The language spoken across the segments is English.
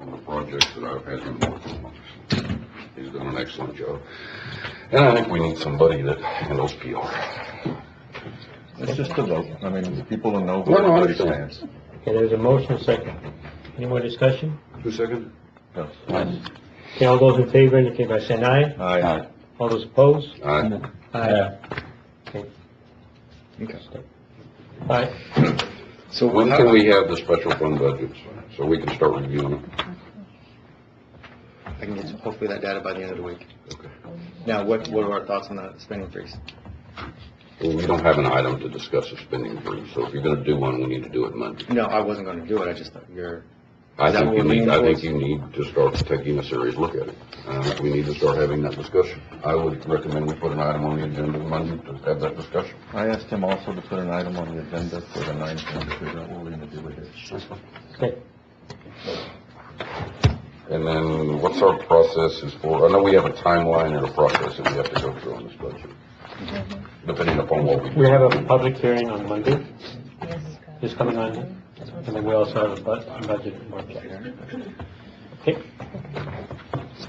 this that I've had him work on. He's done an excellent job. And I think we need somebody that handles PR. It's just a vote. I mean, people will No, know where no, I everybody understand. stands. Okay, there's a motion, a second. Any more discussion? Two second? No. Okay, all those in favor indicate by saying aye. Aye. All those opposed? Aye. Aye. Okay. Aye. So When can we have the special fund budgets, so we can start reviewing them? I can get some- hopefully that data by the end of the week. Now, what, what are our thoughts on the spending freeze? Well, We don't have an item to discuss a spending freeze, so if you're gonna do one, we need to do it Monday. No, I wasn't gonna do it, I just thought you're, I Is that think you what we're need, I leaning think you need to start taking a serious look at it. Uh, we need to start having that discussion. I would recommend we put an item on the agenda Monday to have that discussion. I asked him also to put an item on the agenda for the ninth and to figure out what we're gonna do with it. Okay, And then what's our process is for, I know we have a timeline and a process that we have to go through on this budget, Mm-hmm. depending upon what we do. we have a public hearing on Monday, Yes. this coming Monday, and then we also have a bu- a budget workshop. Okay?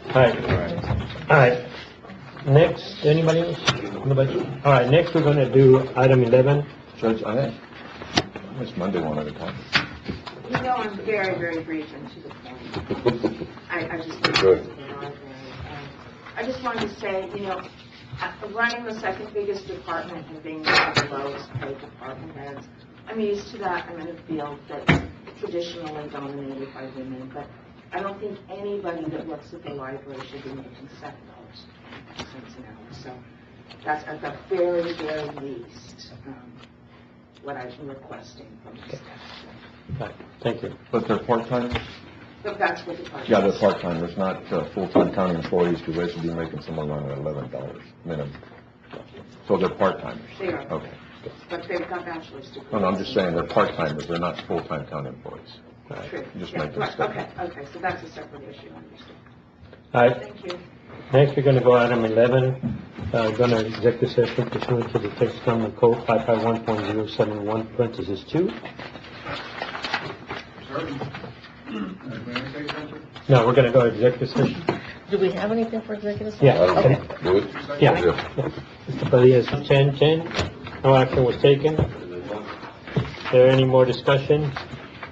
Alright, alright. Next, anybody else? Nobody? Alright, next we're gonna do item eleven. Judge, I, it's Monday one at a time. You know, I'm very, very brief and to the point. I, I just. Good. I just wanted to say, you know, uh, running the second biggest department and being one of the lowest paid department heads, I'm used to that, I'm in a field that's traditionally dominated by women, but I don't think anybody that looks at the library should be making seven dollars and cents an hour. So that's at the very, very least, um, what I'm requesting from the staff. Alright, Thank you. But they're part-timers? But that's what the budget. Yeah, they're part-timers, not uh, full-time county employees, because they should be making somewhere around eleven dollars minimum. So they're part-timers? They are. Okay. But they've got bachelor's degrees. No, no, I'm just saying they're part-timers, they're not full-time county employees. True. Just Yeah, making a right, statement. Okay, okay, so that's a separate issue, I understand. Alright, Thank you. Next, we're going to go item 11, uh, going to executive session pursuant to the Texas Government Code 551.071, parentheses 2. No, we're going to go executive session. Do we have anything for executive session? Yeah. I don't okay. know. Do it? Yeah. But yes, 10, 10, no action was taken. Is there any more discussion?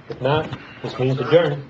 If not, this means adjourned.